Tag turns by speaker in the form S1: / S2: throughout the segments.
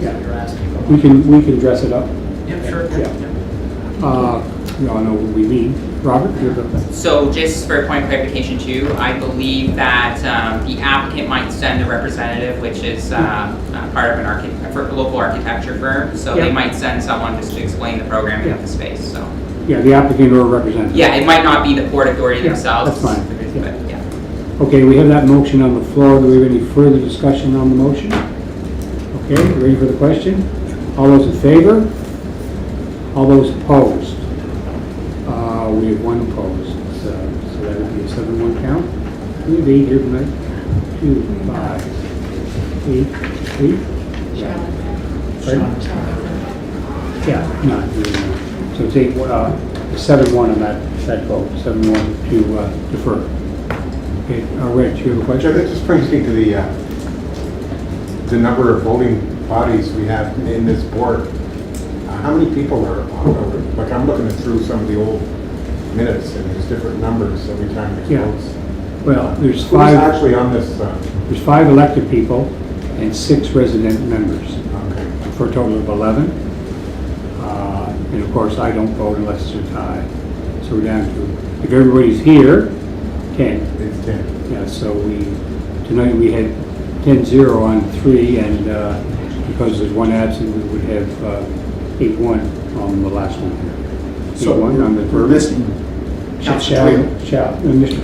S1: Yeah.
S2: you're asking.
S1: We can, we can dress it up.
S2: Yep, sure.
S1: Mm. Yeah.
S2: Yep.
S1: Uh, We all know what we mean. Robert, you're the,
S3: So just for point of clarification too, I believe that um, the applicant might send a representative, which is uh, uh, part of an architect, for a local architecture firm. So
S1: Yeah.
S3: they might send someone just to explain the programming of
S1: Yeah.
S3: the space, so.
S1: yeah, the applicant or representative.
S3: Yeah, it might not be the Port Authority
S1: Yeah,
S3: themselves.
S1: that's fine.
S3: But yeah.
S1: Okay, we have that motion on the floor. Do we have any further discussion on the motion? Okay, ready for the question? All those in favor? All those opposed? Uh, we have one opposed, so, so that would be a seven-one count. We have eight here tonight. Two, five, eight, eight? Yeah. Pardon? Yeah, not, really. so it's eight, uh, seven-one on that, that vote, seven-one to uh, defer. Okay, uh, Rich, you have a
S4: Joe, that
S1: question?
S4: just brings me to the, uh, the number of voting bodies we have in this board. Uh, How many people are on, over- like, I'm looking through some of the old minutes, and there's different numbers every time it
S1: Yeah.
S4: votes.
S1: Well, there's
S4: Who's
S1: five,
S4: actually on this, uh,
S1: there's five elected people and six resident members,
S4: okay,
S1: for a total of 11. Uh, And of course, I don't vote unless it's a tie. So we're down to, if everybody's here, 10.
S4: it's ten.
S1: Yeah, so we, tonight we had 10-0 on three, and uh, because there's one absent, we would have uh, 8-1 on the last one here. 8-1 on the
S2: We're
S1: verb.
S2: missing
S1: Shall,
S2: Council Twill
S1: shall, uh, and Mr.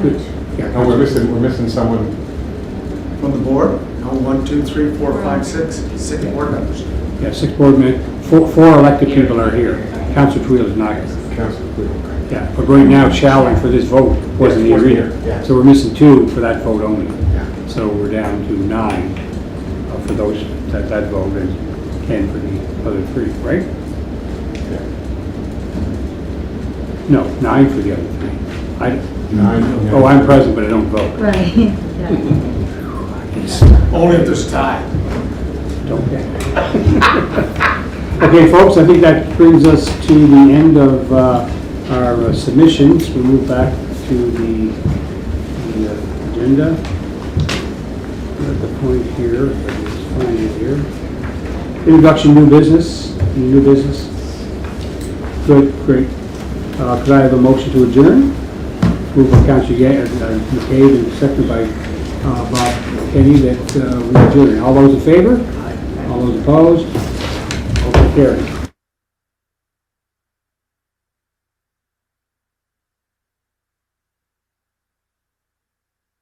S1: Twill.
S2: Twill.
S1: Yeah,
S4: No, Oh, we're
S1: Councilor-
S4: missing, we're missing someone.
S2: from the board. No, one, two, three, four, five, six, six board members.
S1: Yeah, six board men, four, four elected people are here. Council Twill is not here.
S4: Councilor Cleo, okay.
S1: Yeah, but right now, Chowley for this vote wasn't here
S4: Yeah, wasn't here,
S1: either.
S4: yeah.
S1: So we're missing two for that vote only.
S4: Yeah.
S1: So we're down to nine uh, for those, that, that vote and ten for the other three, right?
S4: Yeah.
S1: No, nine for the other three. I,
S4: Nine, yeah.
S1: oh, I'm present, but I don't vote.
S5: Right, yeah.
S2: Only if there's a tie.
S1: Don't get it. Okay, folks, I think that brings us to the end of uh, our uh, submissions. We move back to the the, uh, agenda. We're At the point here, let's find it here. Introduction, new business, Any new business. Good, great. Uh, Could I have a motion to adjourn? Moved by Counsel Ye- uh, McCabe and seconded by uh, Bob Kenny that uh, we adjourn. All those in favor? All those opposed? Motion carried.